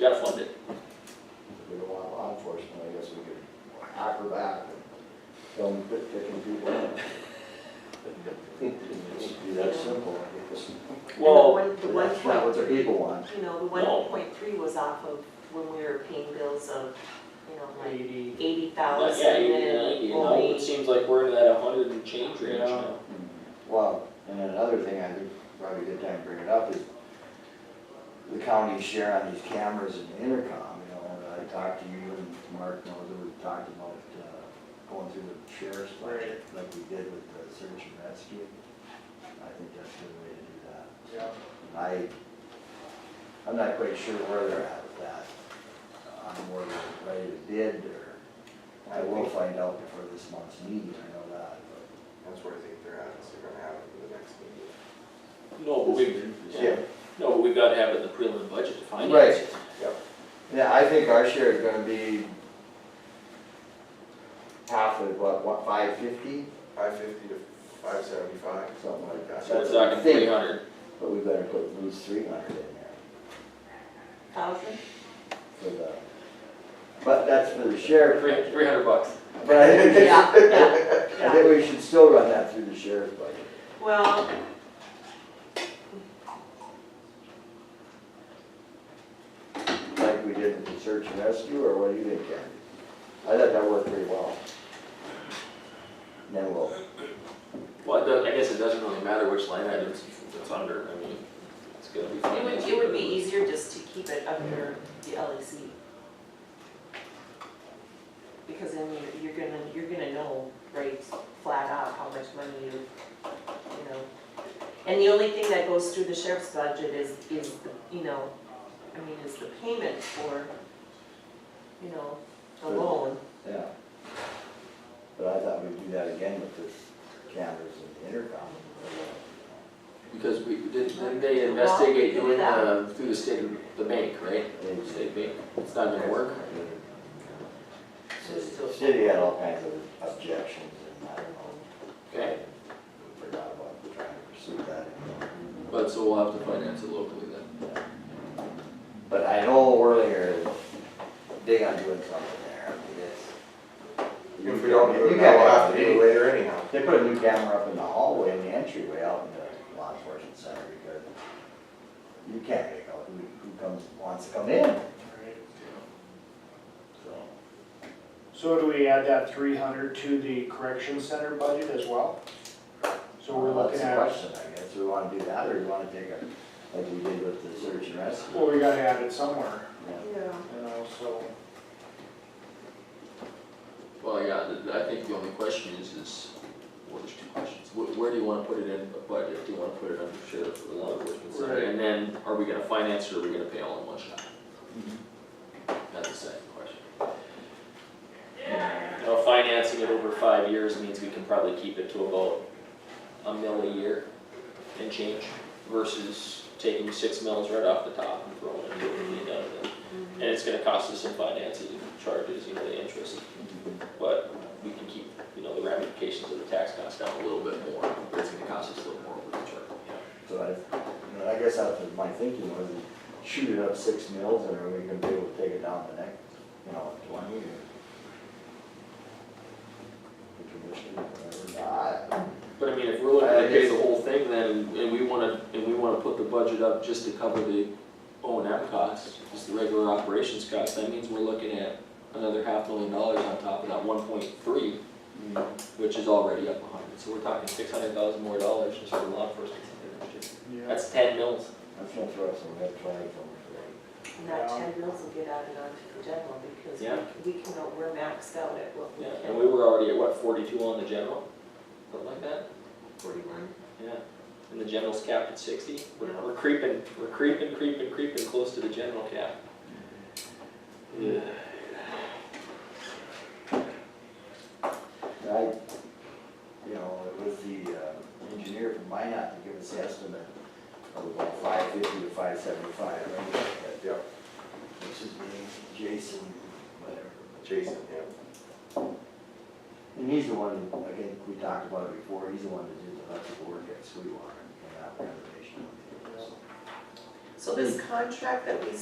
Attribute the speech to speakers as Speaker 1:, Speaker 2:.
Speaker 1: gotta fund it.
Speaker 2: We don't want law enforcement, I guess we could acrobat and tell them to quit kicking people in. It's that simple.
Speaker 1: Well,
Speaker 2: But That's not what the people want.
Speaker 3: You know, the
Speaker 1: No.
Speaker 3: one point three was off of when we were paying bills of, you know, like
Speaker 4: eighty.
Speaker 3: eighty
Speaker 1: but
Speaker 3: thousand
Speaker 1: yeah, you know,
Speaker 3: and
Speaker 1: you know,
Speaker 3: only.
Speaker 1: it seems like we're in that hundred and change range
Speaker 4: Yeah.
Speaker 1: now.
Speaker 2: Well, and then another thing I think probably a good time to bring it up is the county share on these cameras and intercom, you know, and I talked to you and Mark knows that we talked about, uh, going through the sheriff's budget like we did with the search and rescue. I think that's a good way to do that.
Speaker 4: Yeah.
Speaker 2: I, I'm not quite sure where they're at with that, on where they're ready to bid, or, I will find out before this month's meeting, I know that, but.
Speaker 5: That's where I think they're at, is they're gonna have it for the next meeting.
Speaker 1: No, but we,
Speaker 2: Yeah,
Speaker 1: no, but we gotta have it in the prelim budget to finance
Speaker 2: Right.
Speaker 1: it.
Speaker 2: yeah, I think our share is gonna be half of what, what, five fifty,
Speaker 5: Five fifty to five seventy-five.
Speaker 2: something like that.
Speaker 1: So
Speaker 2: That's
Speaker 1: it's
Speaker 2: what I
Speaker 1: not gonna
Speaker 2: think,
Speaker 1: three hundred.
Speaker 2: But we better put at least three hundred in there
Speaker 3: Thousand?
Speaker 2: for the, but that's for the sheriff.
Speaker 1: Three, three hundred bucks.
Speaker 2: But I think, I
Speaker 3: Yeah, yeah, yeah.
Speaker 2: think we should still run that through the sheriff's budget.
Speaker 3: Well.
Speaker 2: like we did with the search and rescue, or what do you think, Ken? I thought that worked pretty well. And Then we'll,
Speaker 1: Well, it does, I guess it doesn't really matter which line items it's under, I mean, it's gonna be
Speaker 3: It would,
Speaker 1: financed.
Speaker 3: it would be easier just to keep it under the E LEC. Because then you're, you're gonna, you're gonna know right flat out how much money you, you know. And the only thing that goes through the sheriff's budget is, is, the you know, I mean, is the payment for, you know, the
Speaker 2: Sure.
Speaker 3: loan.
Speaker 2: yeah. But I thought we'd do that again with this cameras and intercom.
Speaker 1: Because we, didn't, didn't they investigate doing, uh, through the state, of the bank, right?
Speaker 2: Maybe
Speaker 1: State bank, it's not gonna work.
Speaker 2: The City had all kinds of objections, and I don't know,
Speaker 1: Okay,
Speaker 2: forgot about trying to pursue that.
Speaker 1: but so we'll have to finance it locally then.
Speaker 2: But I know Whirlinger is big on doing something there, I mean, it's.
Speaker 5: If we don't do
Speaker 2: You
Speaker 5: it now, we'll
Speaker 2: can't-
Speaker 5: have to do it later anyhow.
Speaker 2: They put a new camera up in the hallway in the entryway out in the law enforcement center because you can't make out who, who comes, wants to come in, so.
Speaker 4: So do we add that three hundred to the correction center budget as well? So we're
Speaker 2: Well,
Speaker 4: looking at,
Speaker 2: uh, That's the question, I guess, we wanna do that or you wanna take a, like we did with the search and rescue.
Speaker 4: well, we gotta add it somewhere,
Speaker 2: Yeah.
Speaker 3: Yeah.
Speaker 4: you know, so.
Speaker 1: Well, yeah, th- I think the only question is, is, well, there's two questions. Where, where do you wanna put it in, the budget? do you wanna put it under sheriff or law enforcement center?
Speaker 4: Right.
Speaker 1: And then, are we gonna finance it or are we gonna pay all in one shot? That's the second question. You know, financing it over five years means we can probably keep it to about a mil a year and change versus taking six mils right off the top and throwing it immediately down it. And it's gonna cost us some financing charges, you know, the interest, but we can keep, you know, the ramifications of the tax cost down a little bit more, but it's gonna cost us a little more over the term, yeah.
Speaker 2: So I, you know, I guess that's what my thinking was, shoot it up six mils and are we gonna be able to take it down the next, you know, twenty or? The commission, whatever. I-
Speaker 1: But I mean, if we're looking
Speaker 2: I
Speaker 1: to pay the
Speaker 2: guess-
Speaker 1: whole thing then, and we wanna, and we wanna put the budget up just to cover the O and M costs, just the regular operations costs, that means we're looking at another half million dollars on top of that one point three, which is already up a hundred, so we're talking six hundred thousand more dollars just for law enforcement next year.
Speaker 4: Yeah.
Speaker 1: That's ten mils.
Speaker 2: That's gonna throw us some red flags over
Speaker 3: And that ten mils will get added onto the general because
Speaker 1: Yeah.
Speaker 3: we, we can, we're maxed out at what we
Speaker 1: Yeah,
Speaker 3: can.
Speaker 1: and we were already at what, forty-two on the general, something like that?
Speaker 3: Forty-one.
Speaker 1: Yeah. And the general's capped at sixty, we're, we're creeping, we're creeping, creeping, creeping close to the general cap. Yeah.
Speaker 2: the rate. I, you know, with the uh, engineer from Minot to give us the estimate of about five fifty to five seventy-five, right?
Speaker 5: Yep,
Speaker 2: Which is being Jason, whatever.
Speaker 5: Jason, yeah.
Speaker 2: And he's the one, I think we talked about it before, he's the one that did the electrical work at Sweetwater and that renovation.
Speaker 3: So this contract that we